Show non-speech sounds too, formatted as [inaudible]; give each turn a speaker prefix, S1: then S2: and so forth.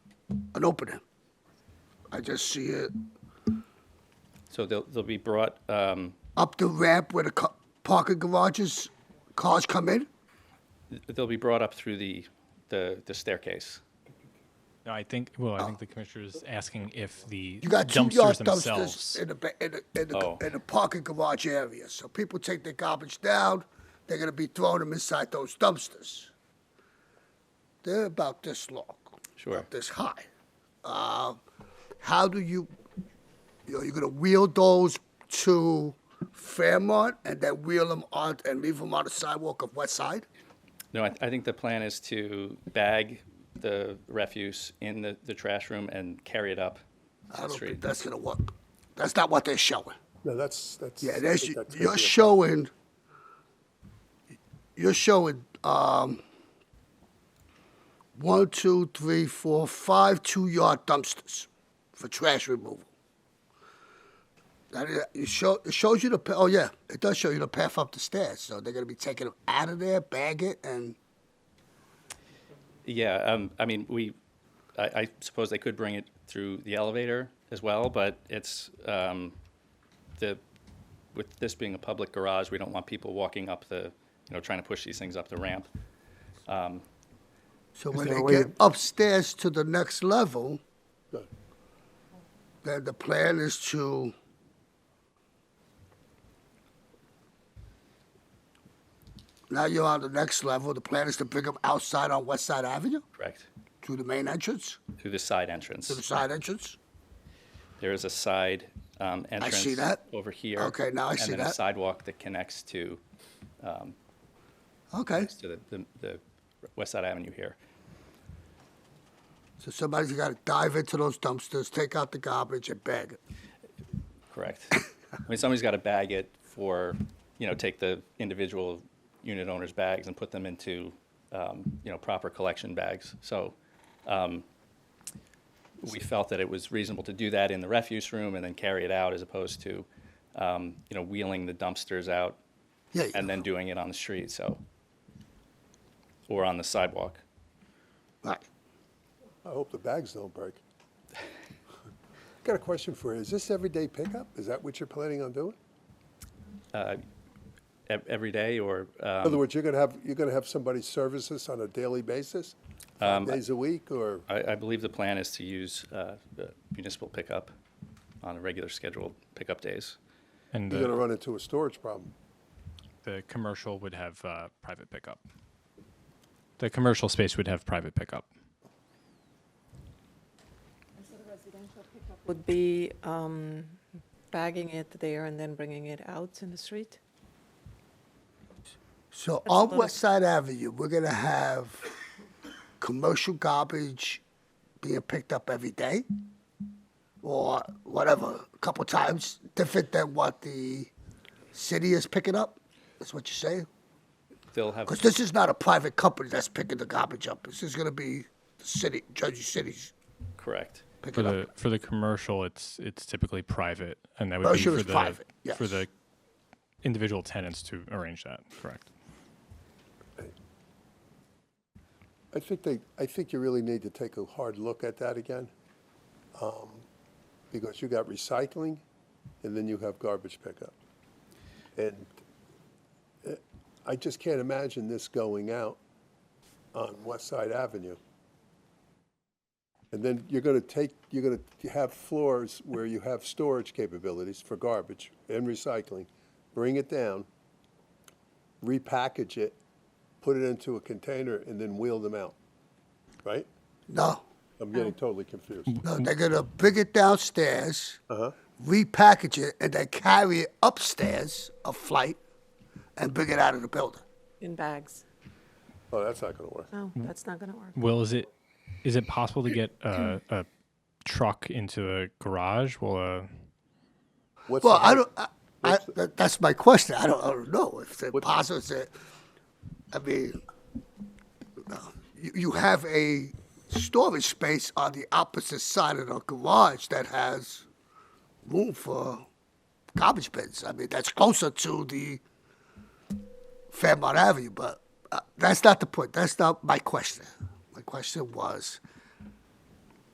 S1: an opening. I just see it
S2: So they'll, they'll be brought, um,
S1: up the ramp where the ca- parking garages, cars come in.
S2: they'll be brought up through the, the the staircase.
S3: No, I think, well, I think the commissioner is asking if the
S1: Oh. You got two
S3: dumpsters
S1: yard dumpsters
S3: themselves.
S1: in the, ba- in the, in the,
S2: Oh.
S1: in the parking garage area. So people take their garbage down, they're gonna be throwing them inside those dumpsters. They're about this long.
S2: Sure.
S1: About this high. Uh, how do you, you know, you're gonna wheel those to Fairmont and then wheel them on and leave them on the sidewalk of West Side?
S2: No, I, I think the plan is to bag the refuse in the, the trash room and carry it up
S1: I
S2: the
S1: don't
S2: street.
S1: think that's gonna work. That's not what they're showing.
S4: No, that's, that's.
S1: Yeah,
S4: I
S1: that's,
S4: think that's gonna
S1: you're
S4: be a-
S1: showing, you're showing, um, one, two, three, four, five two-yard dumpsters for trash removal. That is, it show, it shows you the, pa- oh yeah, it does show you the path up the stairs, so they're gonna be taking them out of there, bag it, and,
S2: Yeah, um, I mean, we, I, I suppose they could bring it through the elevator as well, but it's, um, the, with this being a public garage, we don't want people walking up the, you know, trying to push these things up the ramp.
S1: so when
S4: there a
S1: they
S4: way
S1: get
S4: to-
S1: upstairs to the next level,
S4: Good.
S1: then the plan is to now you're on the next level. The plan is to bring them outside on West Side Avenue
S2: Correct.
S1: to the main entrance,
S2: Through the side
S1: to the
S2: entrance.
S1: side entrance.
S2: There is a side, um, entrance.
S1: see that.
S2: Over here.
S1: Okay, now I see
S2: And then a
S1: that.
S2: sidewalk that connects to,
S1: Okay.
S2: to the, the, the West Side Avenue here.
S1: So somebody's got to dive into those dumpsters, take out the garbage, and bag it. [laughs]
S2: Correct. I mean, somebody's got to bag it for, you know, take the individual unit owners' bags and put them into, um, you know, proper collection bags. So um, we felt that it was reasonable to do that in the refuse room and then carry it out as opposed to, um, you know, wheeling the dumpsters out
S1: Yeah.
S2: and then doing it on the street, so, or on the sidewalk.
S1: right.
S4: I hope the bags don't break. [laughs] Got a question for you. Is this everyday pickup? Is that what you're planning on doing?
S2: E- Every day or,
S4: In other
S2: um,
S4: words, you're gonna have, you're gonna have somebody service this on a daily basis?
S1: Um,
S4: Five days a week or,
S2: I, I believe the plan is to use uh, the municipal pickup on a regular scheduled pickup days.
S3: And
S4: you're gonna
S3: the,
S4: run into a storage problem?
S3: the commercial would have, uh, private pickup. The commercial space would have private pickup.
S5: would be um, bagging it there and then bringing it out in the street?
S1: So on West Side Avenue, we're gonna have commercial garbage being picked up every day, or whatever, a couple times, different than what the city is picking up. That's what you're saying.
S2: They'll have,
S1: Because this is not a private company that's picking the garbage up. This is gonna be the city, Jersey City's
S2: correct,
S3: For
S1: picking up.
S3: the, for the commercial, it's, it's typically private and that would be
S1: Commercial
S3: for
S1: is private,
S3: the, for
S1: yes.
S3: the individual tenants to arrange that, correct?
S4: I think they, I think you really need to take a hard look at that again. um, Because you got recycling and then you have garbage pickup. And eh, I just can't imagine this going out on West Side Avenue. And then you're gonna take, you're gonna have floors where you have storage capabilities for garbage and recycling. Bring it down, repackage it, put it into a container and then wheel them out, right?
S1: No,
S4: I'm getting totally confused.
S1: no, they're gonna bring it downstairs,
S4: Uh-huh.
S1: repackage it, and then carry it upstairs a flight, and bring it out of the building.
S5: In bags?
S4: Oh, that's not gonna work.
S5: No, that's not going to work.
S3: Will, is it is it possible to get a, a truck into a garage? Will a
S4: What's
S1: Well,
S4: the
S1: I
S4: height?
S1: don't. I, I, that, that's my question. I don't, I don't know if it's possible. It's a, I mean, no. you, you have a storage space on the opposite side of the garage that has room for garbage bins. I mean, that's closer to the Fairmont Avenue, but uh, that's not the point. That's not my question. My question was